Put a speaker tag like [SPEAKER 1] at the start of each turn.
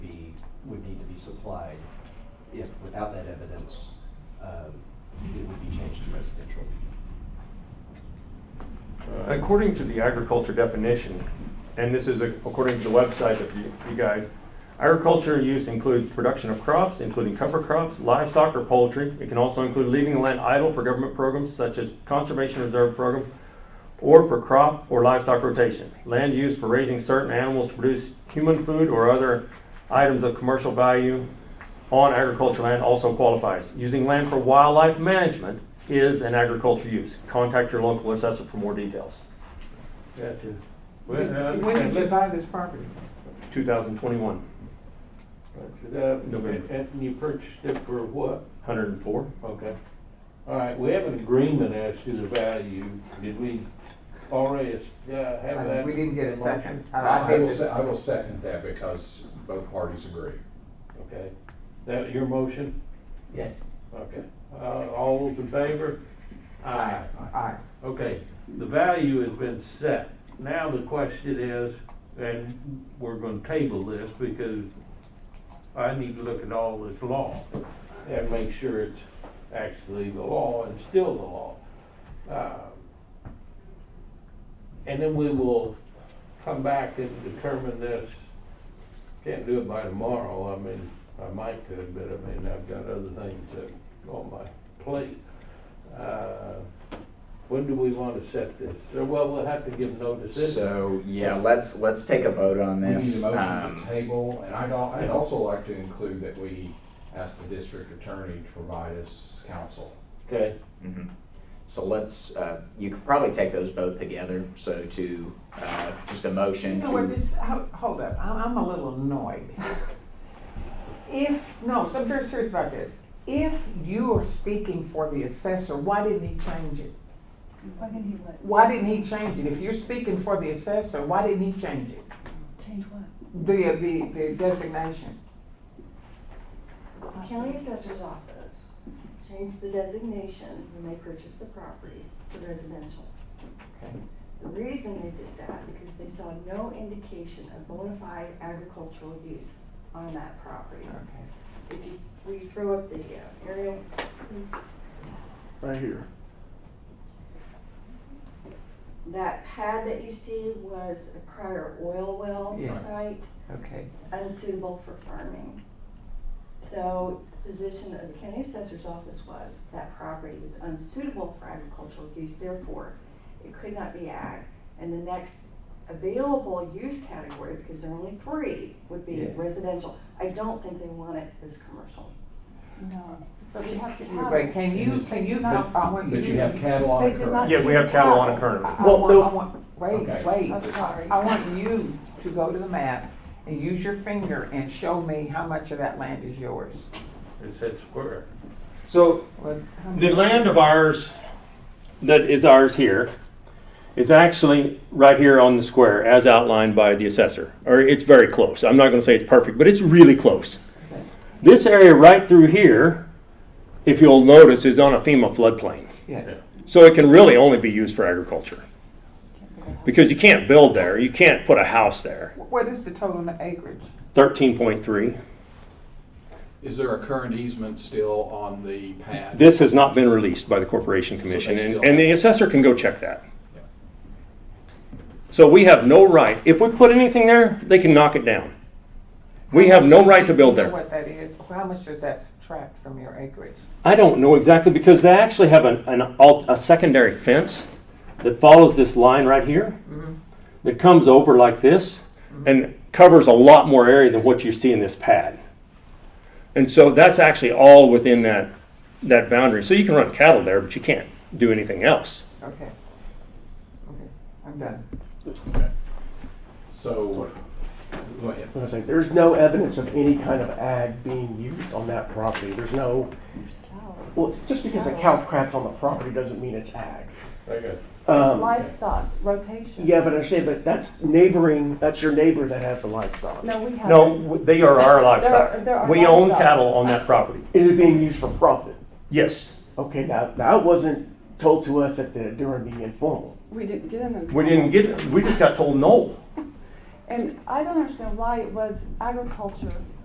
[SPEAKER 1] supplied, if, without that evidence, um, it would be changed to residential.
[SPEAKER 2] Uh, According to the agriculture definition, and this is ac- according to the website of you you guys, agriculture use includes production of crops, including cover crops, livestock or poultry. It can also include leaving the land idle for government programs such as conservation reserve program or for crop or livestock rotation. Land used for raising certain animals to produce human food or other items of commercial value on agricultural land also qualifies. Using land for wildlife management is an agriculture use. Contact your local assessor for more details.
[SPEAKER 3] Gotcha. Well, I
[SPEAKER 4] When when
[SPEAKER 3] understand.
[SPEAKER 4] did you
[SPEAKER 3] uh, Let's-
[SPEAKER 4] buy this property?
[SPEAKER 2] 2021,
[SPEAKER 3] Gotcha. Uh, And
[SPEAKER 2] November.
[SPEAKER 3] and you purchased it for what?
[SPEAKER 2] 104.
[SPEAKER 3] Okay. All right, we have an agreement as to the value. Did we already uh, have
[SPEAKER 4] Uh,
[SPEAKER 3] that?
[SPEAKER 4] We didn't get a
[SPEAKER 3] motion?
[SPEAKER 4] second. Uh,
[SPEAKER 5] I will,
[SPEAKER 4] think
[SPEAKER 5] se- I will second that because both parties agree.
[SPEAKER 3] Okay. That your motion?
[SPEAKER 4] Yes.
[SPEAKER 3] Okay. Uh, All those in favor? Aye.
[SPEAKER 4] Aye.
[SPEAKER 3] Okay, the value has been set. Now the question is, and we're gonna table this because I need to look at all this law and make sure it's actually the law and still the law. Uh, And then we will come back and determine this. Can't do it by tomorrow, I mean, I might could, but I mean, I've got other things that on my plate. Uh, when do we want to set this? So, Well, we'll have to give notice. This-
[SPEAKER 6] So, yeah, let's, let's take a vote on
[SPEAKER 5] We need a
[SPEAKER 6] this.
[SPEAKER 5] motion to
[SPEAKER 6] Um,
[SPEAKER 5] table, and I'd, al- I'd also like to include that we ask the district attorney to provide us counsel.
[SPEAKER 3] Okay,
[SPEAKER 6] mhm. So let's, uh, you could probably take those both together, so to, uh, just a
[SPEAKER 4] You
[SPEAKER 6] motion
[SPEAKER 4] know what,
[SPEAKER 6] to.
[SPEAKER 4] this, ho- hold up, I'm, I'm a little annoyed. If, no, so I'm very serious about this. If you are speaking for the assessor, why didn't he change it?
[SPEAKER 7] Why didn't he let,
[SPEAKER 4] Why didn't he change it? If you're speaking for the assessor, why didn't he change it?
[SPEAKER 7] change what?
[SPEAKER 4] The, the, the designation?
[SPEAKER 8] County Assessor's Office changed the designation when they purchased the property to residential.
[SPEAKER 4] Okay.
[SPEAKER 8] The reason they did that, because they saw no indication of bona fide agricultural use on that property.
[SPEAKER 4] Okay.
[SPEAKER 8] If you, we throw up the uh, aerial, please?
[SPEAKER 9] right here.
[SPEAKER 8] that pad that you see was a prior oil well
[SPEAKER 4] Yeah.
[SPEAKER 8] site,
[SPEAKER 4] Okay.
[SPEAKER 8] unsuitable for farming. So the position of the county assessor's office was, was that property was unsuitable for agricultural use, therefore it could not be ag. And the next available use category, because there are only three, would be
[SPEAKER 4] Yes.
[SPEAKER 8] residential. I don't think they want it as commercial.
[SPEAKER 7] No, but we have to have
[SPEAKER 4] But
[SPEAKER 7] it.
[SPEAKER 4] can you, can you not, I want you.
[SPEAKER 5] But you have cattle on
[SPEAKER 7] They
[SPEAKER 5] it
[SPEAKER 7] did
[SPEAKER 5] currently.
[SPEAKER 7] not-
[SPEAKER 2] Yeah, we have cattle on a current.
[SPEAKER 4] I
[SPEAKER 6] Well,
[SPEAKER 4] want,
[SPEAKER 6] no-
[SPEAKER 4] I want, wait,
[SPEAKER 5] Okay.
[SPEAKER 4] wait.
[SPEAKER 7] I'm sorry.
[SPEAKER 4] I want you to go to the map and use your finger and show me how much of that land is yours.
[SPEAKER 3] it said square.
[SPEAKER 2] So
[SPEAKER 4] What- how
[SPEAKER 2] the
[SPEAKER 4] much-
[SPEAKER 2] land of ours, that is ours here, is actually right here on the square as outlined by the assessor. Or it's very close. I'm not going to say it's perfect, but it's really close. This area right through here, if you'll notice, is on a FEMA floodplain.
[SPEAKER 4] Yes,
[SPEAKER 2] So it can really only be used for agriculture. Because you can't build there, you can't put a house there.
[SPEAKER 4] what is the total acreage?
[SPEAKER 2] Thirteen point three,
[SPEAKER 5] Is there a current easement still on the pad?
[SPEAKER 2] this has not been released by the Corporation Commission, and, and the assessor can go check that. So we have no right, if we put anything there, they can knock it down. We have no right to build
[SPEAKER 4] You know
[SPEAKER 2] there.
[SPEAKER 4] What that is, how much does that subtract from your acreage?
[SPEAKER 2] I don't know exactly, because they actually have an, an, al- a secondary fence that follows this line right here, that comes over like this, and covers a lot more area than what you see in this pad. And so that's actually all within that, that boundary. So you can run cattle there, but you can't do anything else.
[SPEAKER 4] Okay. Okay, I'm done.
[SPEAKER 5] So, go ahead.
[SPEAKER 9] I was like, there's no evidence of any kind of ag being used on that property. There's no, well, just because a cow craps on the property doesn't mean it's ag.
[SPEAKER 3] Okay.
[SPEAKER 9] Um,
[SPEAKER 7] Livestock rotation.
[SPEAKER 9] yeah, but I say, but that's neighboring, that's your neighbor that has the livestock.
[SPEAKER 7] No, we have.
[SPEAKER 2] No, w- they are our
[SPEAKER 7] There are- there
[SPEAKER 2] livestock.
[SPEAKER 7] are
[SPEAKER 2] We own
[SPEAKER 7] livestock.
[SPEAKER 2] cattle on that property.
[SPEAKER 9] Is it being used for profit?
[SPEAKER 2] Yes,
[SPEAKER 9] Okay, now, that wasn't told to us at the, during the informal.
[SPEAKER 7] We didn't get in.
[SPEAKER 2] we didn't get, we just got told no.
[SPEAKER 7] And I don't understand why it was agriculture